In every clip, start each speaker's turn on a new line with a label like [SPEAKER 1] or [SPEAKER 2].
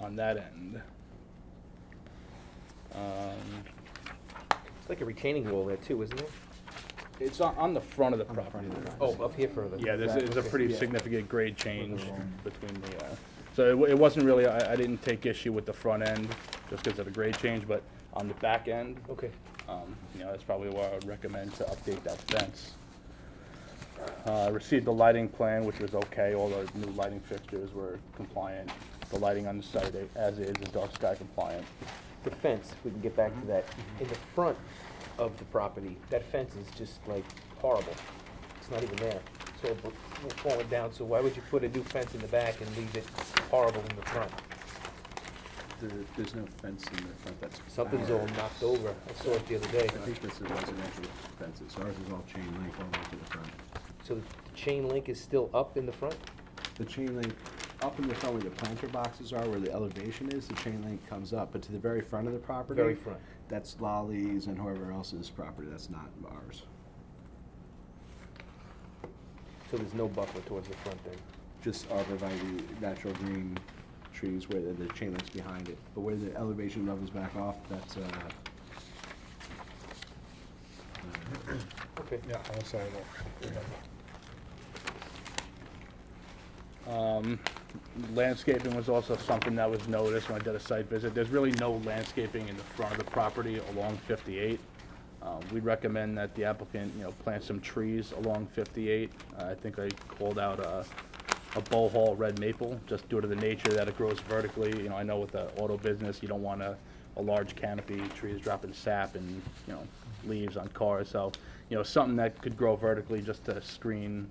[SPEAKER 1] on that end. Um,
[SPEAKER 2] It's like a retaining wall there too, isn't it?
[SPEAKER 1] It's on, on the front of the
[SPEAKER 3] On the front
[SPEAKER 1] property.
[SPEAKER 3] of the
[SPEAKER 1] there.
[SPEAKER 2] Oh, up here further.
[SPEAKER 1] Yeah, there's, there's a
[SPEAKER 2] Okay.
[SPEAKER 1] pretty
[SPEAKER 2] Yeah.
[SPEAKER 1] significant grade change
[SPEAKER 3] wall.
[SPEAKER 1] between the, uh, so it wa- it wasn't really, I, I didn't take issue with the front end just because of the grade change, but on the back end,
[SPEAKER 2] Okay,
[SPEAKER 1] Um, You know, that's probably why I would recommend to update that fence. Uh, I Received the lighting plan, which was okay, all the new lighting fixtures were compliant. The lighting on the site eh, as is is dark sky compliant.
[SPEAKER 2] the fence, if we can get
[SPEAKER 1] Mm-hmm.
[SPEAKER 2] back to that, in the front of the property, that fence is just like horrible. It's not even there. It's all bro- falling down, so why would you put a new fence in the back and leave it horrible in the front?
[SPEAKER 3] There, there's no fence in the front, that's.
[SPEAKER 2] Something's all
[SPEAKER 3] ours.
[SPEAKER 2] knocked over. I saw it the other day.
[SPEAKER 3] I think this is residential fences, ours is all chain link all the way to the front.
[SPEAKER 2] So the chain link is still up in the front?
[SPEAKER 3] The chain link, up in the front where the planter boxes are, where the elevation is, the chain link comes up, but to the very front of the property.
[SPEAKER 2] Very front.
[SPEAKER 3] That's Lolly's and whoever else's property, that's not ours.
[SPEAKER 2] So there's no buffer towards the front then?
[SPEAKER 3] Just arborvitae, natural green trees where the, the chain link's behind it, but where the elevation levels back off, that's, uh,
[SPEAKER 2] Okay.
[SPEAKER 4] Yeah, on the sidewalk.
[SPEAKER 1] Um, Landscaping was also something that was noticed when I did a site visit. There's really no landscaping in the front of the property along 58. Uh, We'd recommend that the applicant, you know, plant some trees along 58. Uh, I think I called out a, a bow hall red maple, just due to the nature that it grows vertically. You know, I know with the auto business, you don't want a, a large canopy, trees dropping sap and, you know, leaves on cars. So, you know, something that could grow vertically just to screen,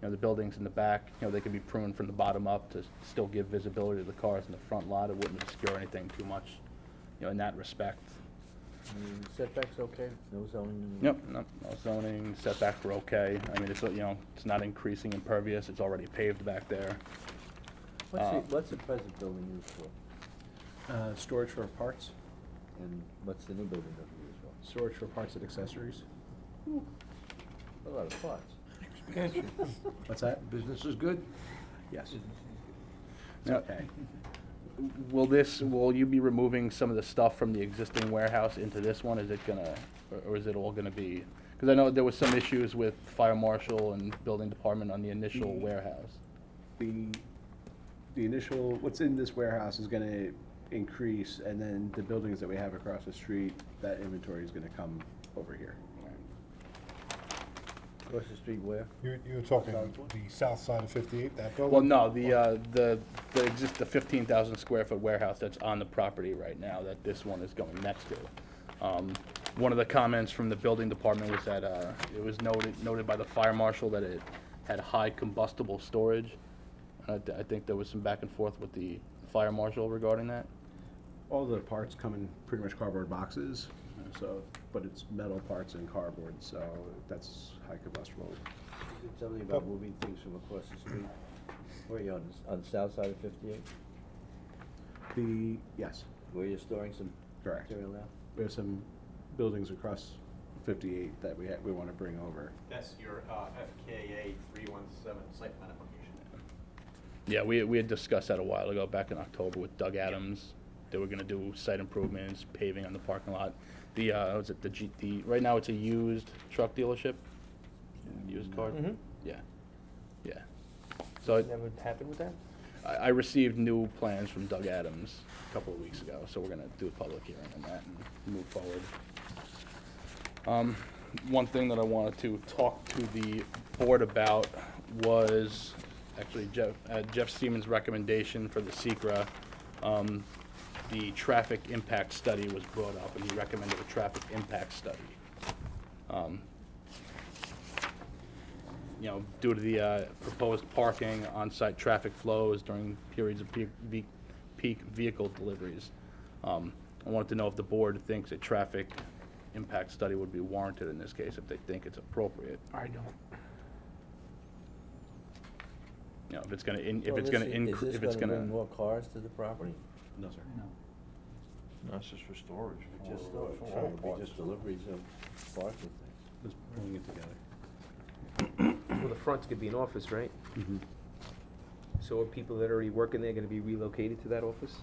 [SPEAKER 1] you know, the buildings in the back, you know, they could be pruned from the bottom up to still give visibility to the cars in the front lot. It wouldn't obscure anything too much, you know, in that respect.
[SPEAKER 5] Setback's okay, no zoning?
[SPEAKER 1] Yep, no, no zoning, setbacks were okay. I mean, it's, you know, it's not increasing impervious, it's already paved back there.
[SPEAKER 5] What's
[SPEAKER 1] Uh,
[SPEAKER 5] the, what's the present building used for?
[SPEAKER 3] uh, storage for parts,
[SPEAKER 5] And what's the new building gonna be used
[SPEAKER 3] storage for parts and accessories.
[SPEAKER 5] for? A lot of parts.
[SPEAKER 3] What's that?
[SPEAKER 6] Business is good?
[SPEAKER 3] Yes.
[SPEAKER 1] Now, Will this, will you be removing some of the stuff from the existing warehouse into this one? Is it gonna, or- or is it all gonna be? Because I know there was some issues with fire marshal and building department on the initial
[SPEAKER 3] Mm.
[SPEAKER 1] warehouse.
[SPEAKER 3] the, the initial, what's in this warehouse is gonna increase, and then the buildings that we have across the street, that inventory is gonna come over here.
[SPEAKER 5] Across the street where?
[SPEAKER 4] You, you were talking the south side of fifty-eight, that building?
[SPEAKER 1] Well, no, the, uh, the, the exist, the fifteen thousand square foot warehouse that's on the property right now that this one is going next to. Um, one of the comments from the building department was that, uh, it was noted, noted by the fire marshal that it had high combustible storage. I, th- I think there was some back and forth with the fire marshal regarding that.
[SPEAKER 3] All the parts come in pretty much cardboard boxes, so, but it's metal parts and cardboard, so that's high combustible.
[SPEAKER 5] Something about moving things from across the street. Where are you on, s- on the south side of fifty-eight?
[SPEAKER 3] The, yes,
[SPEAKER 5] Where you're storing some
[SPEAKER 3] Correct.
[SPEAKER 5] material now?
[SPEAKER 3] we have some buildings across fifty-eight that we, ha- we wanna bring over.
[SPEAKER 7] That's your uh, FKA 317 site plan application.
[SPEAKER 1] Yeah, we, we had discussed that a while ago, back in October with Doug Adams. They were gonna do site improvements, paving on the parking lot. The, uh, was it the G, the, right now it's a used truck dealership? Used car?
[SPEAKER 2] Mhm.
[SPEAKER 1] Yeah, yeah. So I-
[SPEAKER 2] Never happened with that?
[SPEAKER 1] I, I received new plans from Doug Adams a couple of weeks ago, so we're gonna do a public hearing on that and move forward. Um, one thing that I wanted to talk to the board about was actually Jeff, uh, Jeff Siemens' recommendation for the Secra. Um, the traffic impact study was brought up, and he recommended a traffic impact study. Um, you know, due to the uh, proposed parking, on-site traffic flows during periods of peak ve- peak vehicle deliveries. Um, I wanted to know if the board thinks a traffic impact study would be warranted in this case, if they think it's appropriate.
[SPEAKER 2] I don't.
[SPEAKER 1] You know, if it's gonna, in- if
[SPEAKER 5] Well,
[SPEAKER 1] it's
[SPEAKER 5] this
[SPEAKER 1] gonna,
[SPEAKER 5] is-
[SPEAKER 1] incre-
[SPEAKER 5] Is
[SPEAKER 1] if
[SPEAKER 5] this
[SPEAKER 1] it's
[SPEAKER 5] gonna
[SPEAKER 1] gonna.
[SPEAKER 5] bring more cars to the property?
[SPEAKER 3] No, sir.
[SPEAKER 6] That's just for storage.
[SPEAKER 5] Just,
[SPEAKER 6] for- for all
[SPEAKER 5] it'd be
[SPEAKER 6] parts.
[SPEAKER 5] just deliveries of parts and things.
[SPEAKER 3] Just pulling it together.
[SPEAKER 2] Well, the front's gonna be an office, right? So are people that are already working there gonna be relocated to that office?